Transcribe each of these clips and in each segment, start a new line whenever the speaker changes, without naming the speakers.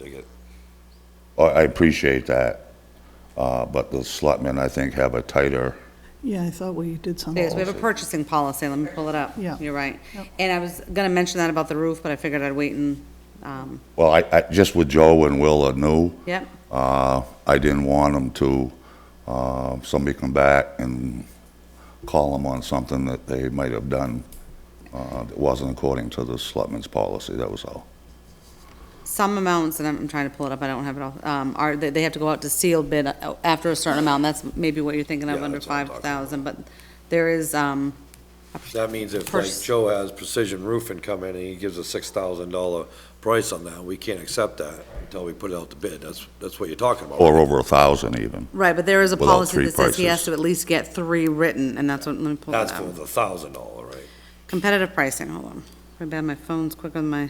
it.
I Oh, I appreciate that, uh, but the selectmen, I think, have a tighter,
Yeah, I thought we did something.
Yes,
Yes.
we have a purchasing policy, let me pull it up.
Yeah.
You're right.
Yep.
And I was gonna mention that about the roof, but I figured I'd wait and, um,
well, I, I, just with Joe and Will are new.
yep,
Uh, I didn't want them to, uh, somebody come back and call them on something that they might have done uh, that wasn't according to the selectmen's policy, that was all.
some amounts, and I'm, I'm trying to pull it up, I don't have it all, um, are, they, they have to go out to seal bid uh, after a certain amount, that's maybe what you're thinking of,
Yeah,
under
that's what I'm
five
talking about.
thousand, but there is, um,
That means if like
Pers-
Joe has Precision Roofing come in and he gives a six thousand dollar price on that, we can't accept that until we put it out to bid. That's, that's what you're talking about.
Or over a thousand even.
right, but there is a
Without
policy
three
that says he has
prices.
to at least get three written, and that's what, let me pull
That's
that
for
up.
the thousand dollar, right?
Competitive pricing, hold on. My bad, my phone's quick on my,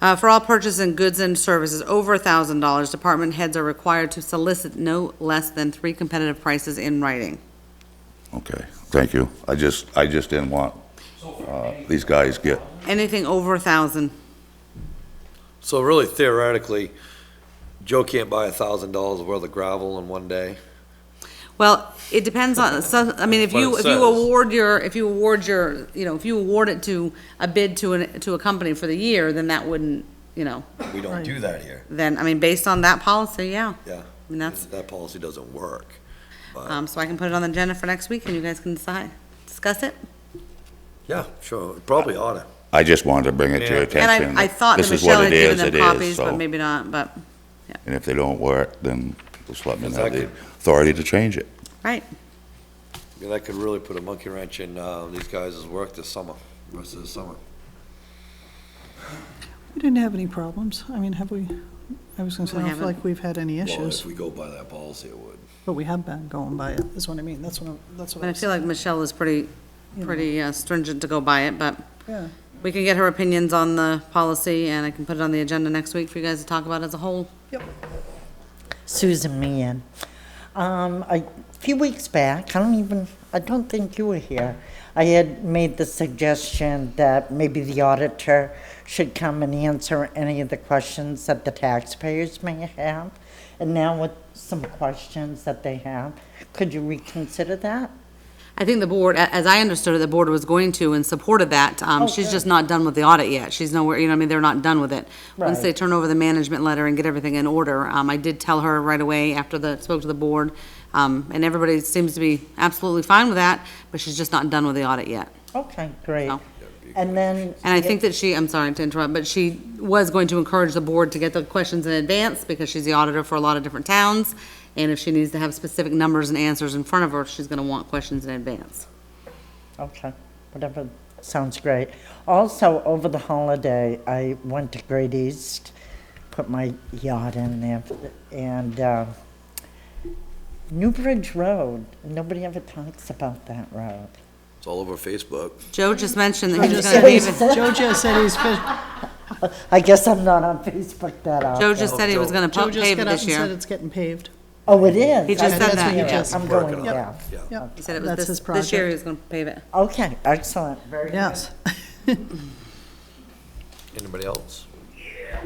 uh, for all purchases and goods and services over a thousand dollars, department heads are required to solicit no less than three competitive prices in writing.
Okay, thank you. I just, I just didn't want uh, these guys get,
Anything over a thousand,
So really theoretically, Joe can't buy a thousand dollars worth of gravel in one day.
well, it depends on, so, I mean, if
That's what
you,
it
if you
says.
award your, if you award your, you know, if you award it to a bid to an, to a company for the year, then that wouldn't, you know,
We don't
Right.
do that here,
then, I mean, based on that policy, yeah.
yeah.
And that's-
That policy doesn't work.
Um, so I can put it on the agenda for next week and you guys can decide, discuss it.
Yeah, sure, it probably ought to.
I just wanted to bring it to your
Yeah.
attention.
And I, I thought that
this is what
Michelle had
it
given
is, it
them
is,
copies, but
so-
maybe not, but,
And if they don't work, then the selectmen have the
Exactly.
authority to change it.
right.
Yeah, That could really put a monkey wrench in, uh, these guys' work this summer, rest of the summer.
We didn't have any problems. I mean, have we, I was gonna say, I don't
We
feel
haven't.
like we've had any
Well,
issues,
if we go by that policy, it would.
but we have been going by it, is what I mean. That's what I'm, that's what
But I
I'm
feel like Michelle is pretty, pretty uh, stringent to go by it, but
Yeah,
we can get her opinions on the policy, and I can put it on the agenda next week for you guys to talk about as a whole.
Susan Meehan. Um, a few weeks back, I don't even, I don't think you were here. I had made the suggestion that maybe the auditor should come and answer any of the questions that the taxpayers may have. And now with some questions that they have, could you reconsider that?
I think the board, a- as I understood it, the board was going to and supported that. Um, she's just not done with the audit yet. She's nowhere, you know, what I mean, they're not done with it. Once they
Right.
turn over the management letter and get everything in order, um, I did tell her right away after the, spoke to the board. Um, and everybody seems to be absolutely fine with that, but she's just not done with the audit yet.
Okay, great.
No.
And then.
And I think that she, I'm sorry to interrupt, but she was going to encourage the board to get the questions in advance because she's the auditor for a lot of different towns. And if she needs to have specific numbers and answers in front of her, she's going to want questions in advance.
Okay, whatever, sounds great. Also, over the holiday, I went to Great East, put my yacht in there, and uh, Newbridge Road, nobody ever talks about that road.
It's all over Facebook.
Joe just mentioned that he was going to be,
like. Joe just said he's, fi-
I guess I'm not on Facebook that
Joe
often.
just said he was going
Joe
to
just
pave it
got up
this
and said
year.
it's getting paved.
Oh, it is?
He just
I
said
didn't
that,
hear
yeah.
I'm
Working
going
on it,
there.
Yeah.
Yep.
He said it was
That's
this,
his
this year he
project.
was going to pave it.
Okay, excellent, very good.
Yes.
Anybody else?
oh,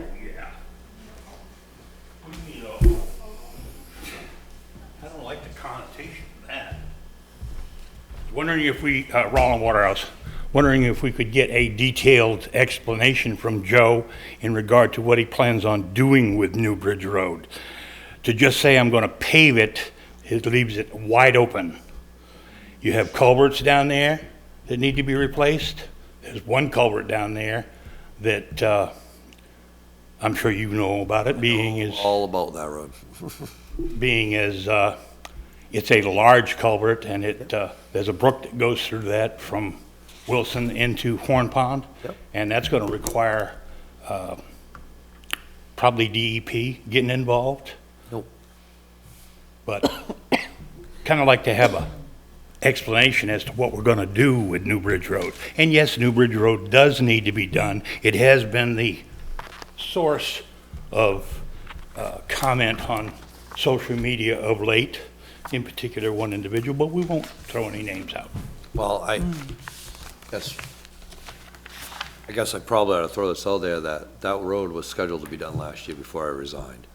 You know, I don't like the connotation of that. Wondering if we, uh, Roland Waterhouse, wondering if we could get a detailed explanation from Joe in regard to what he plans on doing with New Bridge Road. To just say, I'm going to pave it, it leaves it wide open. You have culverts down there that need to be replaced. There's one culvert down there that uh, I'm sure you know about it, being is
All about that road.
being as uh, it's a large culvert and it, uh, there's a brook that goes through that from Wilson into Horn Pond.
Yep.
And that's going to require uh, probably DEP getting involved.
Nope.
But kind of like to have a explanation as to what we're going to do with New Bridge Road. And yes, New Bridge Road does need to be done. It has been the source of uh, comment on social media of late, in particular one individual, but we won't throw any names out.
Well, I, that's, I guess I probably ought to throw this out there, that that road was scheduled to be done last year before I resigned.